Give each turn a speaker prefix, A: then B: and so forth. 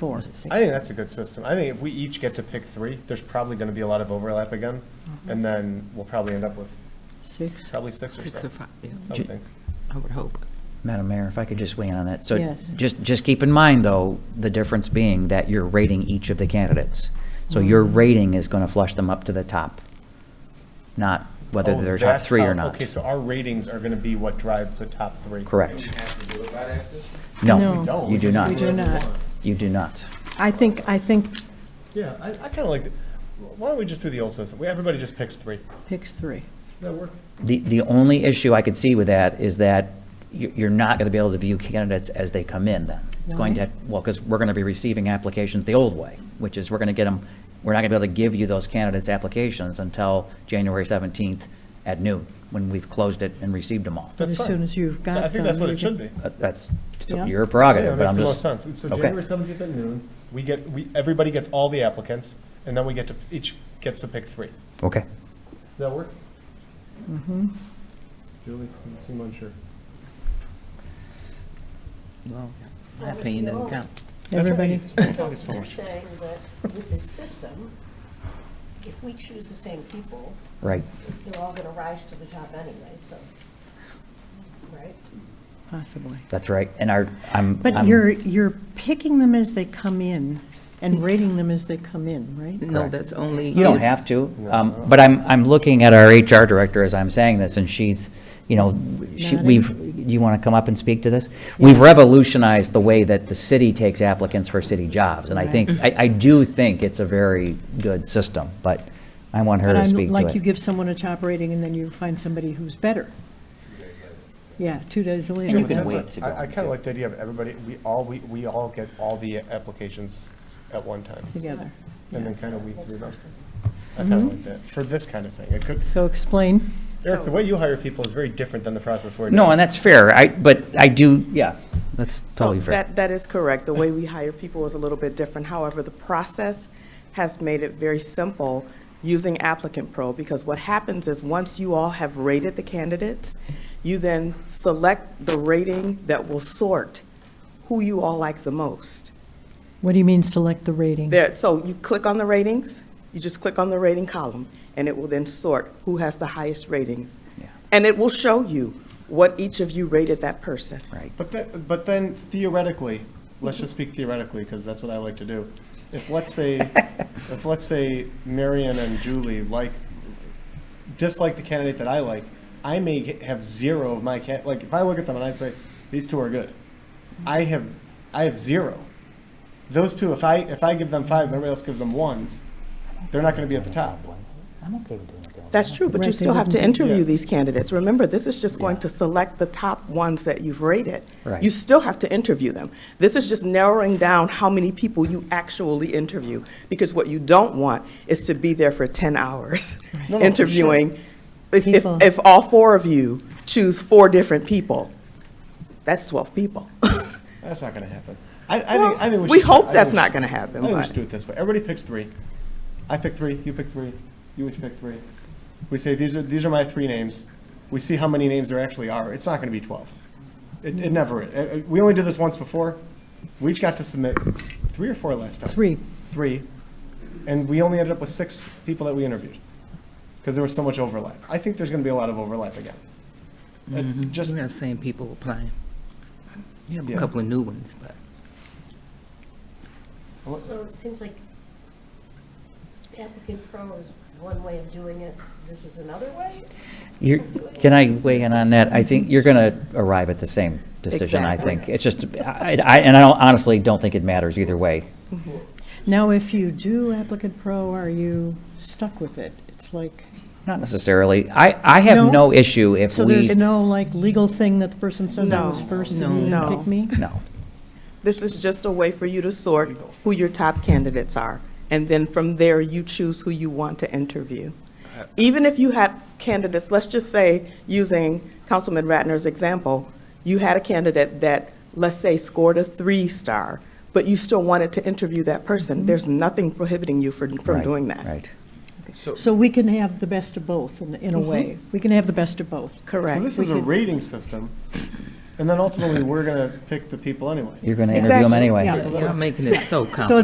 A: four.
B: I think that's a good system. I think if we each get to pick three, there's probably going to be a lot of overlap again,
A: Mm-hmm.
B: and then we'll probably end up with
A: Six?
B: probably six or
C: Six or
B: so,
C: five, yeah,
B: I would think.
C: I would hope.
D: Madam Mayor, if I could just weigh in on that. So
A: Yes.
D: just, just keep in mind, though, the difference being that you're rating each of the candidates. So your
A: Mm-hmm.
D: rating is going to flush them up to the top, not whether
B: Oh,
D: they're top
B: that's
D: three
B: how-
D: or not.
B: Okay, so our ratings are going to be what drives the top three.
D: Correct.
E: have to do it by that system?
A: No. We
D: No,
B: don't.
D: you do
A: We do
D: not.
A: not.
D: You do not.
A: I think, I think
B: Yeah, I, I kind of like, the- why don't we just do the old system? We- Everybody just picks three.
A: picks three.
B: That work?
D: The, the only issue I could see with that is that you- you're not going to be able to view candidates as they come in then. It's going
A: Why?
D: to, well, because we're going to be receiving applications the old way, which is we're going to get them, we're not going to be able to give you those candidates' applications until January 17th at noon, when we've closed it and received them all.
A: But
B: That's
A: as
B: fine.
A: soon as you've got
B: I think
A: them,
B: that's what
A: you
B: it should
A: can-
B: be.
D: Uh, That's
A: Yeah.
D: your
B: Yeah,
D: prerogative, but
B: makes
D: I'm
B: the
D: just.
B: most sense. So
D: okay.
B: January seventeenth at noon, we get, we, everybody gets all the applicants, and then we get to, each gets to pick three. Does
D: Okay.
B: that work? Mm-hmm. Julie, you seem unsure.
C: Well, my opinion doesn't count.
A: Everybody,
F: I'm saying that with this system, if we choose the same people,
D: Right.
F: they're all going to rise to the top anyway, so, right?
A: possibly.
D: That's right. And our, I'm.
A: But
D: I'm-
A: you're, you're picking them as they come in and rating them as they come in, right?
C: No, that's only.
D: You don't
C: if-
D: have to, um, but I'm, I'm looking at our HR director as I'm saying this, and she's, you know, she,
A: Nodding.
D: we've, you want to come up and speak to this? We've revolutionized the way that the city takes applicants for city jobs, and I think,
A: Mm-hmm.
D: I, I do think it's a very good system, but I want her
A: But
D: to
A: I'm
D: speak
A: Like
D: to
A: you
D: it.
A: give someone a top rating and then you find somebody who's better. Yeah, two days later.
D: And you can
A: that's-
D: wait to go
B: I, I kind of like the idea of everybody, we all, we, we all get all the applications at one time,
A: Together.
B: and then kind of weed through them. I kind of
D: Mm-hmm.
B: like that, for this kind of thing. It could,
A: So explain.
B: Eric, the way you hire people is very different than the process we're doing.
D: No, and that's fair, I, but I do, yeah, that's totally
G: So
D: fair.
G: That, that is correct. The way we hire people is a little bit different. However, the process has made it very simple using applicant pro, because what happens is, once you all have rated the candidates, you then select the rating that will sort who you all like the most.
A: What do you mean, select the rating?
G: There, so you click on the ratings, you just click on the rating column, and it will then sort who has the highest ratings.
D: Yeah.
G: And it will show you what each of you rated that person.
D: Right.
B: But then, but then theoretically, let's just speak theoretically, because that's what I like to do. If, let's say, if, let's say Marion and Julie like, dislike the candidate that I like, I may get- have zero of my can, like, if I look at them and I say, these two are good, I have, I have zero. Those two, if I, if I give them fives, and everybody else gives them ones, they're not gonna be at the top.
D: I'm okay with doing it.
G: That's true, but
A: Right, they
G: you still have to
A: wouldn't
G: interview
B: Yeah.
G: these candidates. Remember, this is just going to select the top ones that you've rated.
D: Right.
G: You still have to interview them. This is just narrowing down how many people you actually interview, because what you don't want is to be there for 10 hours
B: No, no, for sure.
G: interviewing. If, if,
A: People.
G: if all four of you choose four different people, that's 12 people.
B: That's not gonna happen. I, I think, I think we should.
G: We hope
B: I think
G: that's
B: we
G: not
B: should-
G: gonna happen,
B: I think we
G: but-
B: should do it this way. Everybody picks three. I pick three, you pick three, you each pick three. We say, these are, these are my three names. We see how many names there actually are. It's not gonna be twelve. It, it never, is. Uh, uh, we only did this once before. We each got to submit three or four last time.
A: Three.
B: Three. And we only ended up with six people that we interviewed, because there was so much overlap. I think there's gonna be a lot of overlap again. Uh, Just,
G: Mm-hmm.
C: You're not saying people applying. You have
B: Yeah.
C: a couple of new ones, but.
B: What-
F: So it seems like applicant pro is one way of doing it, this is another way?
D: You're, can I weigh in on that? I think you're going to arrive at the same decision, I
G: Exactly.
D: think. It's just, I, I- and I don't- honestly don't think it matters either way.
A: Now, if you do applicant pro, are you stuck with it? It's like,
D: Not necessarily. I, I have
A: No?
D: no issue if
A: so
D: we.
A: there's no like legal thing that the person says I was
G: No.
A: first and you
G: No.
A: didn't pick me?
D: No.
G: This is just a way for you to sort who your top candidates are, and then from there, you choose who you want to interview. Even if you had candidates, let's just say, using Councilman Ratner's example, you had a candidate that, let's say, scored a three-star, but you still wanted to interview that person, there's nothing prohibiting you from, from
D: Mm-hmm. Right,
G: doing that.
D: Right.
A: So we can have the
G: Mm-hmm.
A: best of both in, in a way. We can have the best of both.
G: Correct.
B: So this is a rating system,
H: And then ultimately, we're going to pick the people anyway.
B: You're going to interview them
I: Exactly,
B: anyway.
D: yeah.
C: Y'all making it so complicated.